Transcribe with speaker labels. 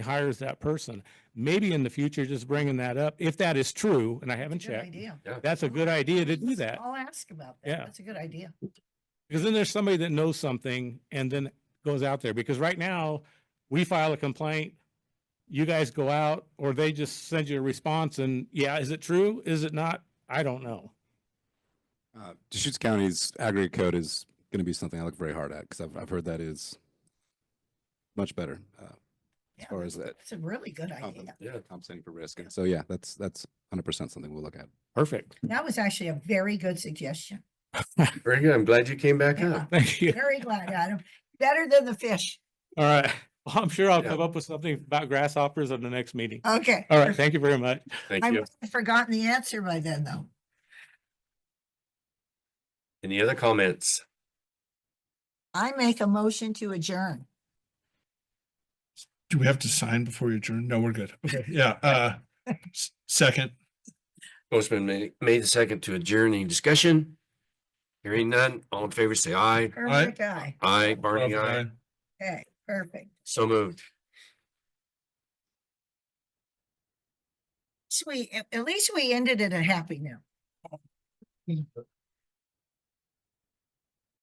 Speaker 1: hires that person. Maybe in the future, just bringing that up, if that is true, and I haven't
Speaker 2: Good
Speaker 1: checked,
Speaker 2: idea.
Speaker 1: that's a good idea to do that.
Speaker 2: I'll ask about that.
Speaker 1: Yeah.
Speaker 2: That's a good idea.
Speaker 1: Because then there's somebody that knows something and then goes out there. Because right now, we file a complaint, you guys go out, or they just send you a response and, yeah, is it true? Is it not? I don't know.
Speaker 3: Uh, Deschutes County's aggregate code is going to be something I look very hard at because I've, I've heard that is much better uh,
Speaker 2: Yeah,
Speaker 3: as far as that
Speaker 2: It's a really good
Speaker 3: comp-
Speaker 2: idea.
Speaker 3: compensating for risk. And so, yeah, that's that's 100% something we'll look at.
Speaker 1: Perfect.
Speaker 2: That was actually a very good suggestion.
Speaker 4: Very good. I'm glad you came back
Speaker 2: Yeah,
Speaker 4: up.
Speaker 1: Thank you.
Speaker 2: Very glad, Adam. Better than the fish.
Speaker 1: All right. Well, I'm sure I'll
Speaker 4: Yeah.
Speaker 1: come up with something about grasshoppers in the next meeting.
Speaker 2: Okay.
Speaker 1: All right. Thank you very much.
Speaker 4: Thank
Speaker 2: I
Speaker 4: you.
Speaker 2: must have forgotten the answer by then, though.
Speaker 4: Any other comments?
Speaker 2: I make a motion to adjourn.
Speaker 5: Do we have to sign before you adjourn? No, we're good. Okay, yeah, uh, s- second,
Speaker 4: Motion made, made the second to adjourn any discussion. Hearing none, all in favor, say aye.
Speaker 2: Perfect guy.
Speaker 4: Aye, Barney, aye.
Speaker 2: Okay, perfect.
Speaker 4: So moved.
Speaker 2: Sweet. At least we ended it a happy note.